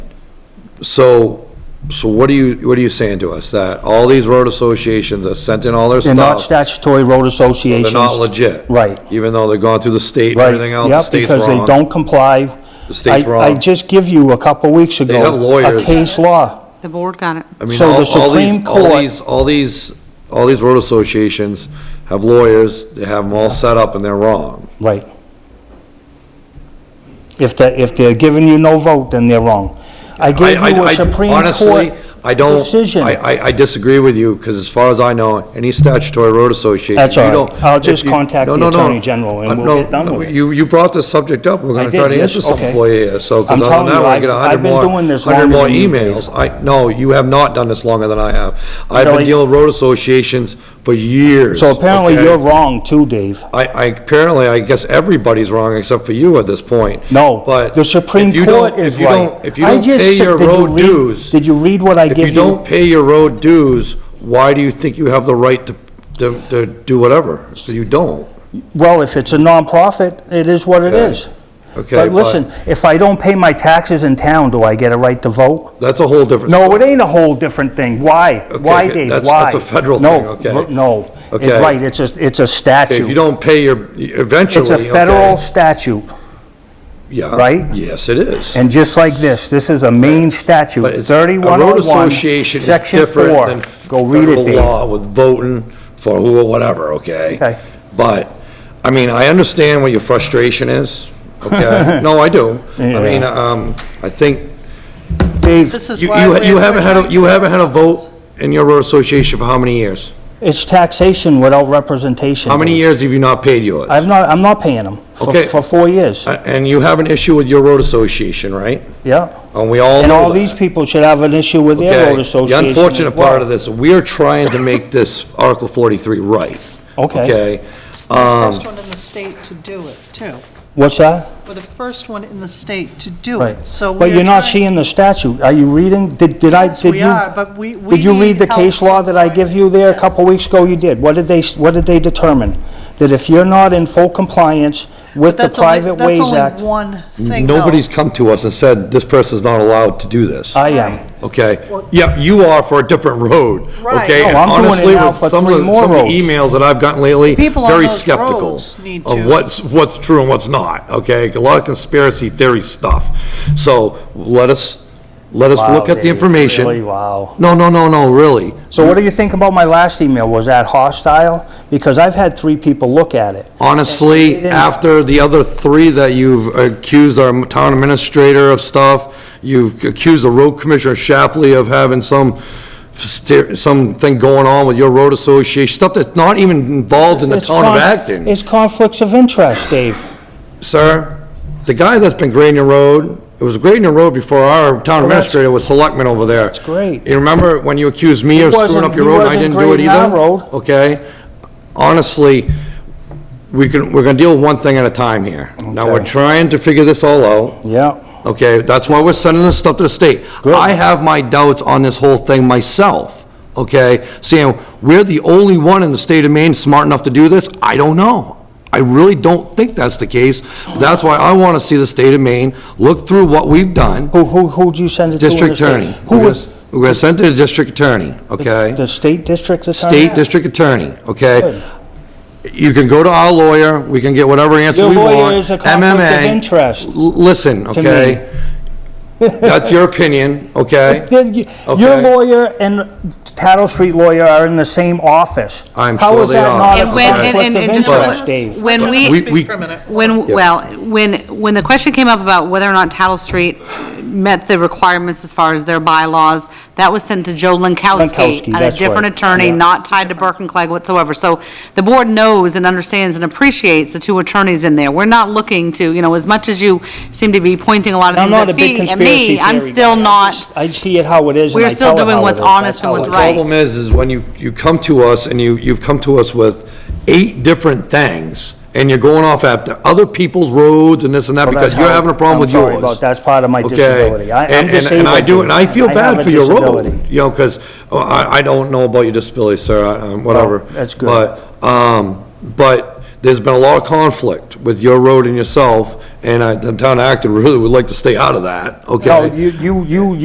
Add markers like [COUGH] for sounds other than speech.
So, so what are you, what are you saying to us? That all these road associations that sent in all their They're not stuff? statutory road associations. They're not legit? Right. Even though they're going through the state and Right, everything else, the yep, state's Because they wrong? don't comply. The state's I- I wrong. just give you a couple weeks ago. have lawyers. A case law. The board got it. I mean, so all- the all these- Supreme all Court- these- All these, all these road associations have lawyers, they have them all set up and they're wrong. Right. If they, if they're giving you no vote, then they're wrong. I gave I- you I- a I- Supreme honestly, Court I don't- decision. I, I- I disagree with you, because as far as I know, any statutory road association. That's all you right. don't- I'll if just you- contact no, the no, no. Attorney General and Uh, we'll no, get done with it. You, you brought this subject up, we're I gonna did, try to yes, answer something okay. for you here, so, I'm because telling other than that, we're you, gonna I've- get a I've hundred been more, doing this hundred more longer than you, emails. I, no, you have not done this longer than I have. I've Really? been dealing with road associations for years. So apparently okay? you're wrong too, Dave. I, I, apparently, I guess everybody's wrong except for you at this point. No, But. the Supreme if you don't- Court is if you right. don't- If you I don't just pay said- your did you road read- dues. Did you read what I If give you you? don't pay your road dues, why do you think you have the right to, to, to do whatever? So you don't, Well, if it's a nonprofit, it is what it Okay. is. okay? But listen, if I don't pay my taxes in town, do I get a right to vote? That's a whole different. No, story. it ain't a whole different thing. Why? Okay, Why, okay, Dave? that's- Why? that's a federal No, thing, okay. r- No, It- Okay. right, it's a, it's If a you statute. don't pay your, eventually, It's a okay? federal statute, Yeah. right? Yes, it is. and just like this, this is a main statute, But it's- A road 3101, association is section different 4. than Go read federal it, Dave. law with voting for who or whatever, okay? Okay. But, I mean, I understand what your frustration is, [LAUGHS] okay? No, I do. I mean, um, I think, Dave, you, you you haven't had, a you haven't had a vote in your road association for how many years? it's taxation without representation. How many Dave. years have you not paid yours? I've not, I'm not paying them for, Okay. for four years, A- And you have an issue with your road association, right? yeah. And we all know And all that. these people should have an issue with their Okay, road association The as unfortunate part well. of this, we're trying to make [LAUGHS] this Article 43 right. Okay. Okay? First Um, one in the state to do it, too. What's that? We're the first one in the state to do Right. it, Oh, so we're But you're not trying- seeing the statute. Are you reading? Did, did I, Yes, did you? we are, but we- we Did you read need the case help. law that I give you there a Yes. couple weeks ago? You did. What did they, s- what did they determine? That if you're not in full compliance with the That's only- Private Ways That's Act, only one thing, though. Nobody's come to us and said, this person's not allowed to do this. I am. Okay? Well- Yeah, you are for a different road. Right. Okay? No, And I'm doing it honestly, now with for some of the- three more Some of the roads. emails that I've gotten lately, People on very those skeptical roads need of to- what's, what's true and what's not, okay? A lot of conspiracy theory stuff. So let us, let us Wow, look at the Dave, information. really? Wow. No, no, no, no, really. So what do you think about my last email? Was that hostile? Because I've had three people look at it. Honestly, didn't- after the other three that you've accused our town administrator of stuff, you've accused the road commissioner Shapley of having some, ster- something going on with your road association, stuff that's not even involved in the It's town of conf- Acton. It's conflicts of interest, Dave. Sir, the guy that's been grading the road, it was grading the road before our town that's- administrator was selectman over there. That's great. You remember when you accused me of screwing wasn't- up your he road and I wasn't didn't do it grading our either? road. Okay? Honestly, we can, we're gonna deal with one thing at a time here. Now, we're Okay. trying to figure this all out, Yeah, okay? That's why we're sending this stuff to the state. Good. I have my doubts on this whole thing myself, okay? Saying, we're the only one in the state of Maine smart enough to do this, I don't know. I really don't think that's the case. That's why I wanna see the state of Maine look through what we've done. who, who, who'd you send it to? in the District state? attorney. Who We're was, gonna- We're gonna send it to the district attorney, okay? the state district attorney? State district attorney, okay? Good. You can go to our lawyer, we can get whatever answer Your we want. lawyer is a conflict of MMA. interest L- Listen, to me. okay? That's your opinion, [LAUGHS] okay? Then you- Your Okay. lawyer and Tattle Street lawyer are in the same office. I'm How sure is they that are. not a And when, and, conflict and, of and just, But- interest, Yes. Dave? when Can I We- we, Speak for a minute. when, well, when, when the question came up about whether or not Tattle Street met the requirements as far as their bylaws, that was sent to Joe Lankowski, Lankowski, and a that's different right, attorney, yeah. not tied to Burke and Clegg whatsoever. So the board knows and understands and appreciates the two attorneys in there. We're not looking to, you know, as much as you seem to be pointing a lot of I'm things not a at big Fee and conspiracy me, I'm theory still guy. I not, just- I see it how it is and We're I still tell it doing how it what's is. That's honest and how it what's is. The problem right. is, is when you, you come to us and you, you've come to us with eight different things, and you're going off after other people's roads and this and that, Well, because that's you're how- having a problem I'm with sorry yours. about- that's part of my Okay? disability. I- I'm And- and- And I do, disabled. and I feel I have bad a for your disability. road, you know, because, I, I don't know about your disability, sir, I- um, whatever. Oh, that's good. But, um, but there's been a lot of conflict with your road and yourself, and I, the town of Acton really would like to stay out of that, okay? No, you, you, you